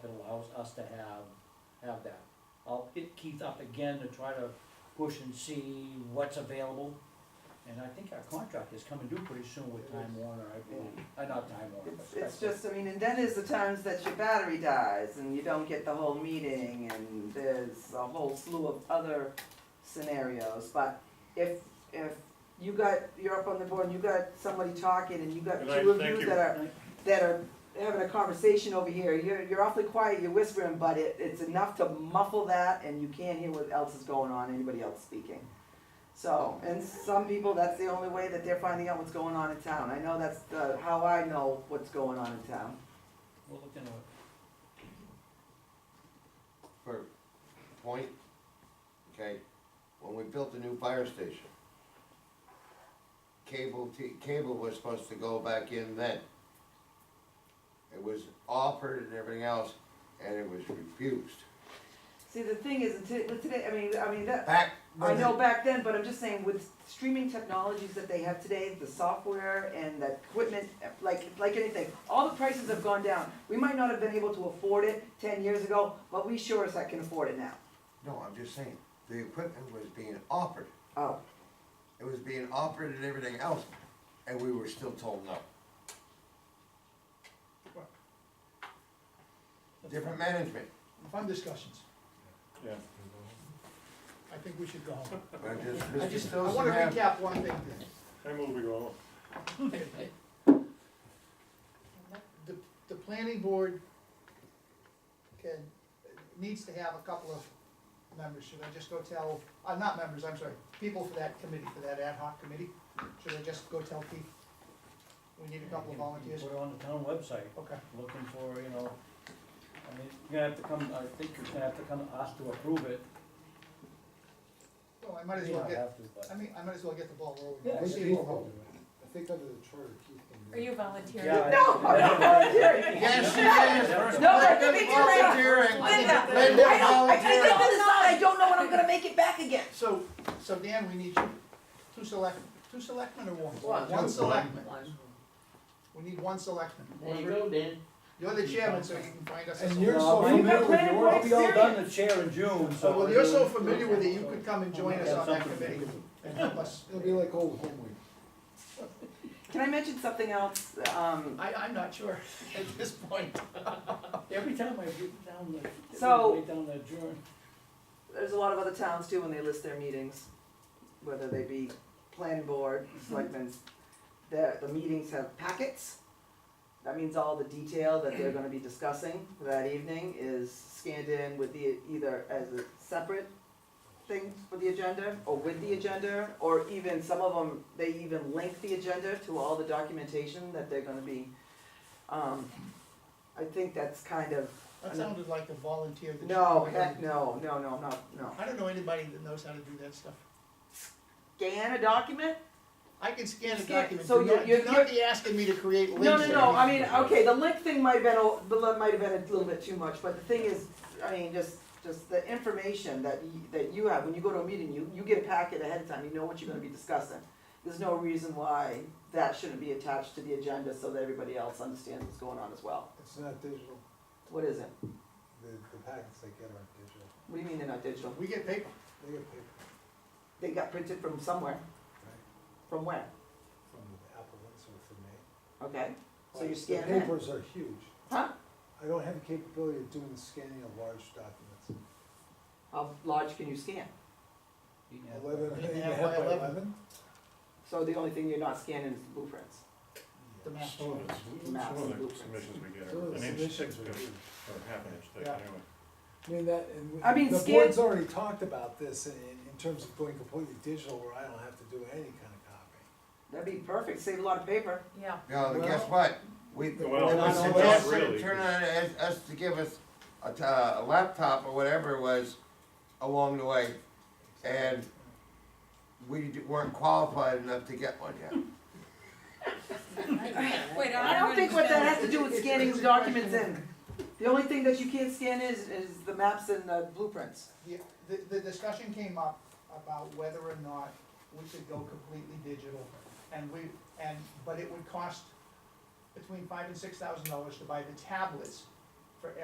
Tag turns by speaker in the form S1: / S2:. S1: allows us to have, have that. I'll hit Keith up again to try to push and see what's available. And I think our contract is coming due pretty soon with Time Warner, I believe, uh, not Time Warner, but
S2: It's,
S1: Spectrum.
S2: it's just, I mean, and then there's the times that your battery dies and you don't get the whole meeting and there's a whole slew of other scenarios, but if, if you got, you're up on the board and you got somebody talking and you got
S3: Good night,
S2: two of
S3: thank
S2: you
S3: you.
S2: that are, that are having a conversation over here, you're, you're awfully quiet, you're whispering, but it, it's enough to muffle that and you can't hear what else is going on, anybody else speaking. So, and some people, that's the only way that they're finding out what's going on in town. I know that's the, how I know what's going on in town.
S1: We'll look into it.
S4: for point, okay, when we built the new fire station, cable, t- cable was supposed to go back in then. It was offered and everything else, and it was refused.
S2: See, the thing is, t- with today, I mean, I mean, that,
S4: Back.
S2: I
S4: when
S2: know
S4: the-
S2: back then, but I'm just saying with streaming technologies that they have today, the software and the equipment, like, like anything, all the prices have gone down. We might not have been able to afford it ten years ago, but we sure as heck can afford it now.
S4: No, I'm just saying, the equipment was being offered,
S2: Oh,
S4: it was being offered and everything else, and we were still told no. Different management,
S5: Fun discussions.
S3: Yeah.
S5: I think we should go home.
S4: but I'm just,
S5: I
S4: Mr.
S5: just, I
S4: Stilson
S5: wanna
S4: have-
S5: recap one thing.
S3: I move we go on.
S5: The, the planning board can, needs to have a couple of members. Should I just go tell, uh, not members, I'm sorry, people for that committee, for that ad hoc committee? Should I just go tell Keith? We need a couple of volunteers.
S1: We're on the town website,
S5: Okay,
S1: looking for, you know, I mean, you're gonna have to come, I think you're gonna have to come ask to approve it.
S5: well, I might as
S1: You
S5: well
S1: don't
S5: get,
S1: have to, but-
S5: I mean, I might as well get the ball rolling.
S1: Yeah,
S5: We'll see
S1: Keith
S5: what-
S6: I think under the charter, Keith can. do
S7: Are
S6: it.
S7: you volunteering?
S1: Yeah, I-
S2: No, I'm not volunteering.
S4: Yes, she is.
S1: First-
S2: No, I
S4: Linda's
S2: think it's
S4: volunteering.
S7: Linda.
S4: Linda's
S2: I don't, I kinda
S4: volunteering.
S2: did this on, I don't know when I'm gonna make it back again.
S5: So, so Dan, we need you, two select, two selectmen or one?
S2: One.
S5: One selectman. We need one selectman.
S8: There you go, Dan.
S5: You're the chairman, so you can find us. a
S6: And you're
S5: selectman.
S6: so
S1: No, we've got
S6: familiar with your.
S1: planning board, we all done the chair in June, so.
S5: So, Oh, well, you're so familiar with it, you could come and join us on that committee and help us.
S6: It'll be like old home week.
S2: Can I mention something else? Um,
S5: I, I'm not sure at this point.
S1: Every time I get down the,
S2: So-
S1: get down the adjourn.
S2: there's a lot of other towns too, when they list their meetings, whether they be planning board, selectmen's, the, the meetings have packets. That means all the detail that they're gonna be discussing that evening is scanned in with the, either as a separate thing for the agenda, or with the agenda, or even, some of them, they even link the agenda to all the documentation that they're gonna be, um, I think that's kind of,
S5: That sounded like a volunteer. that you-
S2: no, heck, no, no, no, not, no.
S5: I don't know anybody that knows how to do that stuff.
S2: Scan a document?
S5: I can scan a
S2: Scan-
S5: document,
S2: so
S5: do
S2: you're-
S5: not,
S2: you're-
S5: do not be asking me to create links.
S2: No, no,
S5: or
S2: no, I
S5: anything.
S2: mean, okay, the link thing might have been, a- the li- might have been a little bit too much, but the thing is, I mean, just, just the information that you, that you have, when you go to a meeting, you, you get a packet ahead of time, you know what you're gonna be discussing. There's no reason why that shouldn't be attached to the agenda so that everybody else understands what's going on as well.
S6: It's not digital,
S2: What is it?
S6: the, the packets they get aren't digital,
S2: What do you mean they're not digital?
S5: We get paper.
S6: they get paper,
S2: They got printed from somewhere,
S6: right,
S2: from where?
S6: from Apple or from me.
S2: Okay, so you scan
S6: The
S2: that?
S6: papers are huge.
S2: Huh?
S6: I don't have the capability of doing the scanning of large documents.
S2: How large can you scan?
S6: Eleven,
S5: Eight and a
S6: eight and a
S5: half
S6: half
S5: by
S6: by
S5: eleven.
S6: eleven?
S2: So the only thing you're not scanning is the blueprints.
S5: The maps.
S3: Some of the, some
S2: Maps
S3: of
S2: and
S3: the
S2: blueprints.
S3: submissions we get
S6: Some of
S3: are
S6: the
S3: an inch thick,
S6: submissions
S3: or
S6: are huge.
S3: half an inch thick
S5: Yeah.
S3: anyway.
S6: I mean, that, and.
S2: I mean,
S6: The
S2: scan-
S6: board's already talked about this in, in terms of going completely digital where I don't have to do any kind of copying.
S2: That'd be perfect, save a lot of paper.
S7: Yeah.
S4: No, and guess what? We, it
S3: Well,
S4: was
S6: not
S4: suggested,
S3: really.
S4: turn on us, us to give us a, t- uh, a laptop or whatever it was along the way, and we d- weren't qualified enough to get one yet.
S7: Wait,
S2: I don't think what that has to do with scanning the
S5: It's-
S2: documents in. The only thing that you can't scan is, is the maps and the blueprints.
S5: The, the, the discussion came up about whether or not we should go completely digital, and we, and, but it would cost between five and six thousand dollars to buy the tablets